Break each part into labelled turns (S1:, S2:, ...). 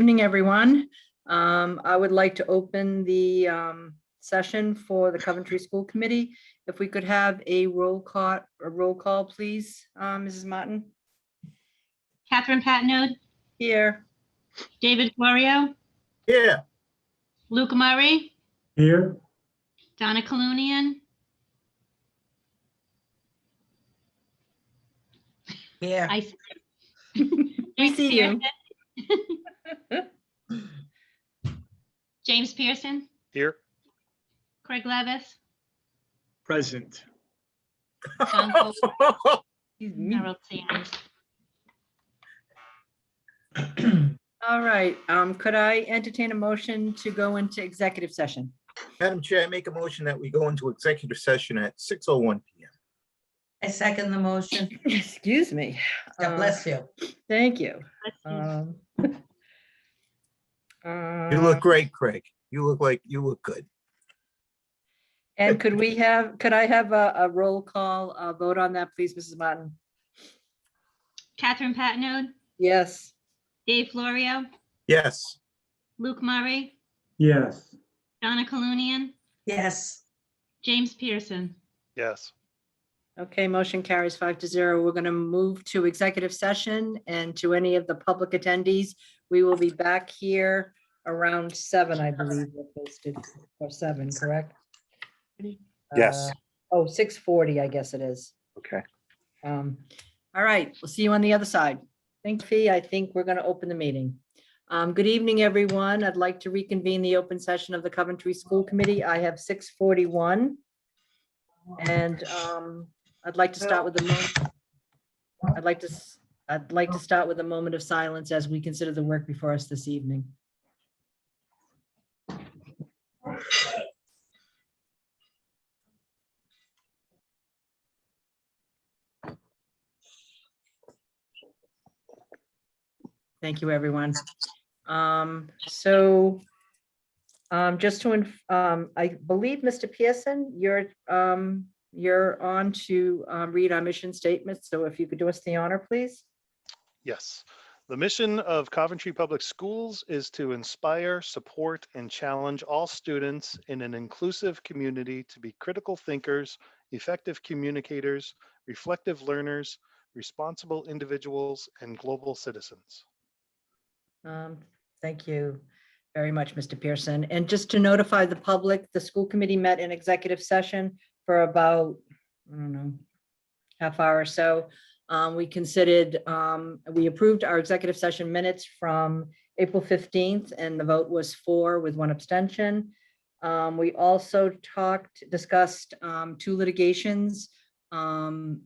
S1: Evening, everyone. Um, I would like to open the um, session for the Coventry School Committee. If we could have a roll call, a roll call, please, um, Mrs. Martin?
S2: Catherine Patino,
S1: Here,
S2: David Florio,
S3: Yeah.
S2: Luke Murray,
S3: Here.
S2: Donna Colunian,
S4: Yeah,
S2: I.
S1: We see you.
S2: James Pearson,
S5: Here.
S2: Craig Levis,
S6: Present.
S2: John Cole,
S1: he's mute.
S2: Harold Sanders.
S1: All right, um, could I entertain a motion to go into executive session?
S3: Madam Chair, I make a motion that we go into executive session at 6:01 PM.
S4: I second the motion.
S1: Excuse me.
S4: God
S1: Uh,
S4: bless you.
S1: Thank you.
S2: Let's see.
S1: Um,
S3: You look
S1: uh,
S3: great, Craig. You look like, you look good.
S1: And could we have, could I have a, a roll call, uh vote on that, please, Mrs. Martin?
S2: Catherine Patino,
S1: Yes.
S2: Dave Florio,
S3: Yes.
S2: Luke Murray,
S6: Yes.
S2: Donna Colunian,
S4: Yes,
S2: James Pearson.
S5: Yes.
S1: Okay, motion carries five to zero. We're going to move to executive session and to any of the public attendees. We will be back here around seven, I believe, we're posted, or seven, correct?
S5: Yes.
S1: Uh, Oh, 6:40, I guess it is.
S5: Okay.
S1: Um, All right, we'll see you on the other side. Thank you. I think we're going to open the meeting. Um, Good evening, everyone. I'd like to reconvene the open session of the Coventry School Committee. I have 6:41. And um, I'd like to start with a moment. I'd like to, s- I'd like to start with a moment of silence as we consider the work before us this evening. Thank you, everyone. Um, so um, just to, inf- um, I believe, Mr. Pearson, you're, um, you're on to um, read our mission statement. So if you could do us the honor, please.
S5: Yes. The mission of Coventry Public Schools is to inspire, support, and challenge all students in an inclusive community to be critical thinkers, effective communicators, reflective learners, responsible individuals, and global citizens.
S1: Um, Thank you very much, Mr. Pearson. And just to notify the public, the school committee met in executive session for about, I don't know, half hour or so. Um, We considered, um, we approved our executive session minutes from April 15th, and the vote was four with one abstention. Um, We also talked, discussed um, two litigations. um,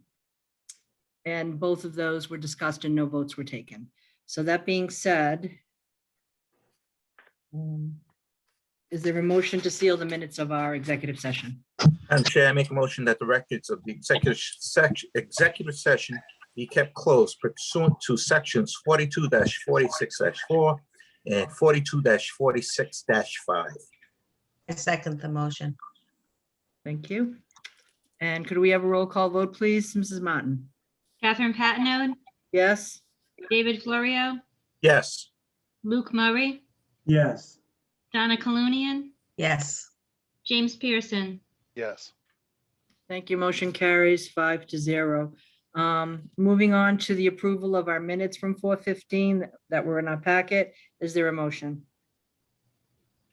S1: And both of those were discussed and no votes were taken. So that being said, um, is there a motion to seal the minutes of our executive session?
S3: Madam Chair, I make a motion that the records of the executive section, executive session be kept closed pursuant to sections forty-two forty-six four and forty-two forty-six five.
S4: I second the motion.
S1: Thank you. And could we have a roll call vote, please? Mrs. Martin?
S2: Catherine Patino,
S1: Yes?
S2: David Florio,
S3: Yes.
S2: Luke Murray,
S6: Yes.
S2: Donna Colunian,
S4: Yes,
S2: James Pearson.
S5: Yes.
S1: Thank you. Motion carries five to zero. Um, Moving on to the approval of our minutes from 4:15 that were in our packet. Is there a motion?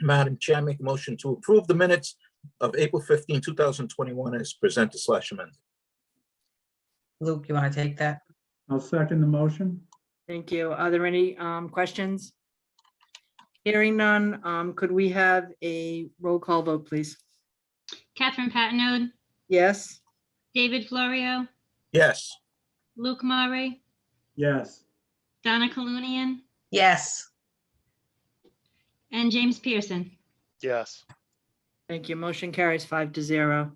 S3: Madam Chair, I make a motion to approve the minutes of April 15, 2021 as presented slash amended.
S4: Luke, you want to take that?
S6: I'll second the motion.
S1: Thank you. Are there any um, questions? Hearing none, um, could we have a roll call vote, please?
S2: Catherine Patino,
S1: Yes?
S2: David Florio,
S3: Yes.
S2: Luke Murray,
S6: Yes.
S2: Donna Colunian,
S4: Yes,
S2: and James Pearson.
S5: Yes.
S1: Thank you. Motion carries five to zero.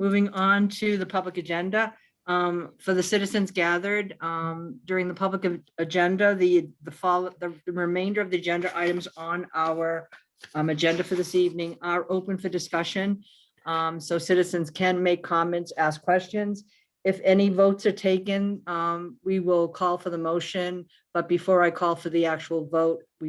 S1: Moving on to the public agenda. um, For the citizens gathered um, during the public ag- agenda, the, the follow, the remainder of the agenda items on our um, agenda for this evening are open for discussion. Um, So citizens can make comments, ask questions. If any votes are taken, um, we will call for the motion. But before I call for the actual vote, we